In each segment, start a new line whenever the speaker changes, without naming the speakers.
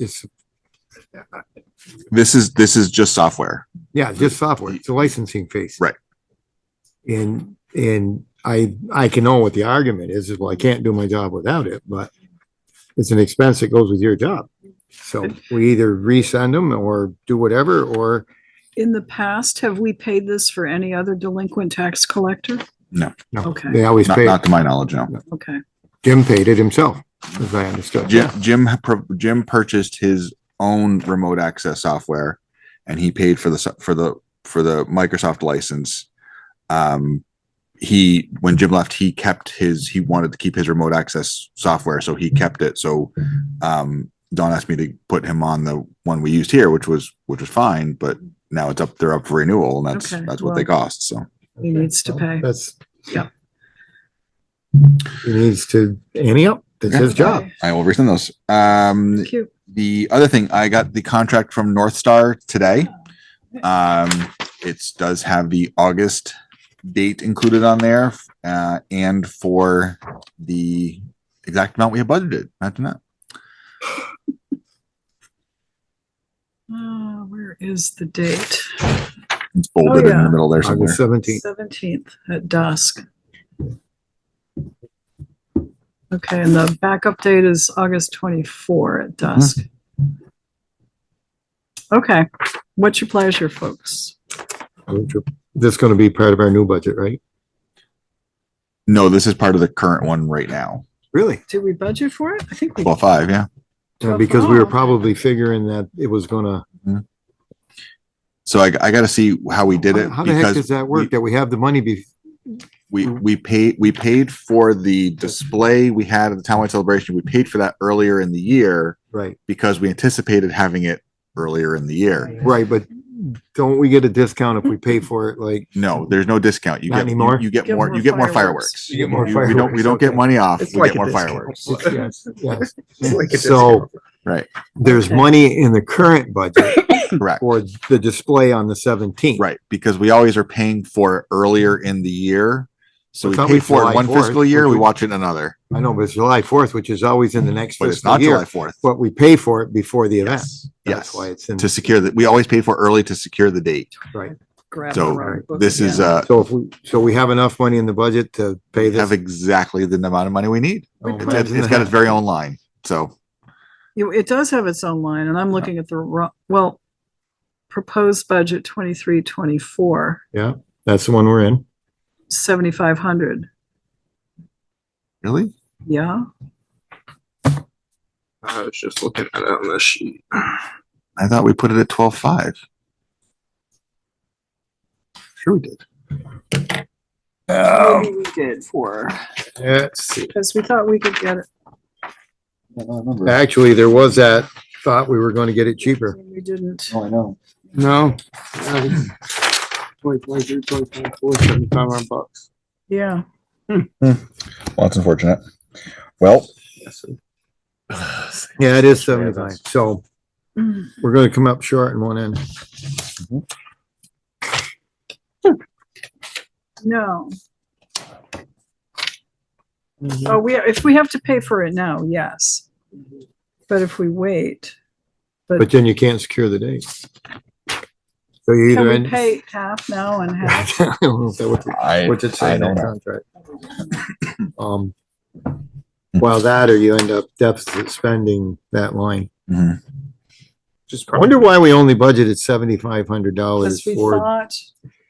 It's,
This is, this is just software.
yeah, just software. It's a licensing fee.
Right.
And, and I, I can know what the argument is, is well, I can't do my job without it, but it's an expense that goes with your job. So we either resend them or do whatever, or
In the past, have we paid this for any other delinquent tax collector?
No.
no,
Okay.
they always
Not,
pay.
not to my knowledge, no.
Okay,
Jim paid it himself, as I understood.
Jim, Jim, pro- Jim purchased his own remote access software and he paid for the, so- for the, for the Microsoft license. Um, he, when Jim left, he kept his, he wanted to keep his remote access software, so he kept it. So, um, Don asked me to put him on the one we used here, which was, which was fine, but now it's up, they're up for renewal and that's,
Okay,
that's what they cost. So
He needs to pay.
That's.
Yeah.
He needs to, any up, that's his job.
I will resend those. Um,
thank you.
the other thing, I got the contract from North Star today. Um, it does have the August date included on there, uh, and for the exact amount we have budgeted. Imagine that.
Uh, where is the date?
It's bolded in
yeah.
the middle there somewhere.
August seventeenth.
Seventeenth at dusk. Okay, and the backup date is August twenty-four at dusk. Okay, what's your pleasure, folks?
That's gonna be part of our new budget, right?
No, this is part of the current one right now.
Really?
Did we budget for it? I think we,
Well, five, yeah.
Twelve
Because we were
dollars.
probably figuring that it was gonna.
So I, I gotta see how we did it
How the heck
because
does that work? That we have the money be,
we, we paid, we paid for the display we had at the townwide celebration. We paid for that earlier in the year
right,
because we anticipated having it earlier in the year.
right, but don't we get a discount if we pay for it? Like,
No, there's no discount. You
Not
get, you-
anymore?
you get more, you get more fireworks.
You get more
You- We don't,
fireworks,
we don't get
okay.
money off,
It's
we
like
get
a
more
discount.
fireworks.
yes, yes.
It's like a
So
discount.
Right,
there's
Okay.
money in the current budget
correct,
for the display on the seventeenth.
right, because we always are paying for it earlier in the year. So we
It's
pay
always
for
July
it one
4th,
fiscal year,
which
we
we-
watch it another,
I know, but it's July fourth, which is always in the next
but it's
fiscal
not July
year,
fourth.
but we pay for it before the event.
Yes,
That's
yes,
why it's in,
to secure that, we always pay for early to secure the date.
right.
grab
So,
our own book
This is,
again.
uh,
So if we, so we have enough money in the budget to pay this.
have exactly the amount of money we need.
Oh,
It's-
imagine
it's got
that.
its very own line, so.
You, it does have its own line, and I'm looking at the, wrong. well, proposed budget twenty-three, twenty-four,
That's the one we're in.
seventy-five hundred,
Really?
yeah?
I was just looking at it on the sheet.
I thought we put it at twelve-five. Sure we did.
Oh.
Maybe we did for,
Let's see.
because we thought we could get it.
I don't remember.
Actually, there was that thought we were gonna get it cheaper.
and We didn't.
Oh, I know.
No. Twenty twenty-three, twenty twenty-four, seventy-five hundred bucks.
Yeah,
Well, that's unfortunate. Well,
Yeah, it is seventy-five, so
Mm.
we're gonna come up short in one end.
no. Oh, we, if we have to pay for it now, yes. But if we wait,
But then you can't secure the date. So you
can
either
we
end. I
pay half now and half?
don't know if that would be-
I,
What's it say
I
in
don't
that
know.
contract? Um, well, that or you end up deficit spending that line.
Mhm.
Just
I wonder why we only budgeted seventy-five hundred dollars
Because we
for,
thought,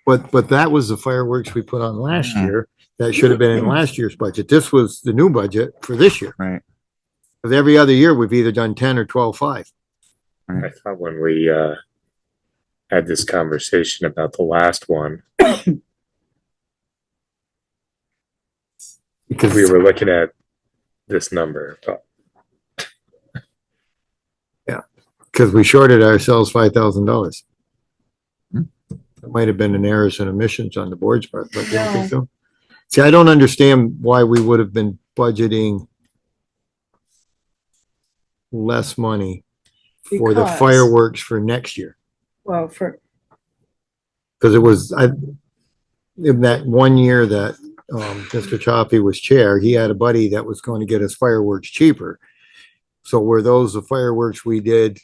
but, but that was the fireworks we put on last
Mhm.
year. That should have been in last year's budget. This was the new budget for this year.
Right.
Cause every other year, we've either done ten or twelve-five.
I thought when we uh, had this conversation about the last one,
Because
we were looking at this number. But
Because we shorted ourselves five thousand dollars.
Hmm.
It might have been an errors and omissions on the board's part, but you don't think so? See, I don't understand why we would have been budgeting less money for the
Because-
fireworks for next year,
well, for,
because it was, I, in that one year that, um, Mr. Choppy was chair, he had a buddy that was going to get us fireworks cheaper. So were those the fireworks we did